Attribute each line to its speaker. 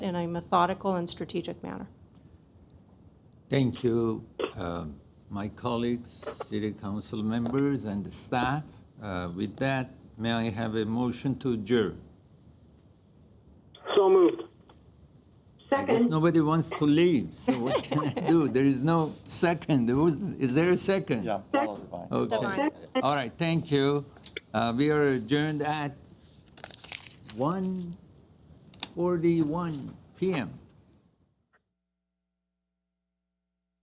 Speaker 1: in a methodical and strategic manner.
Speaker 2: Thank you, um, my colleagues, city council members, and the staff. Uh, With that, may I have a motion to adjourn?
Speaker 3: So moved.
Speaker 2: I guess
Speaker 4: Second,
Speaker 2: nobody wants to leave, so what can I do? There is no second. Who's- Is there a second?
Speaker 5: Yeah, Paul Devine.
Speaker 2: Okay.
Speaker 1: Stefan.
Speaker 2: All right, thank you. Uh, We are adjourned at 1:41 PM.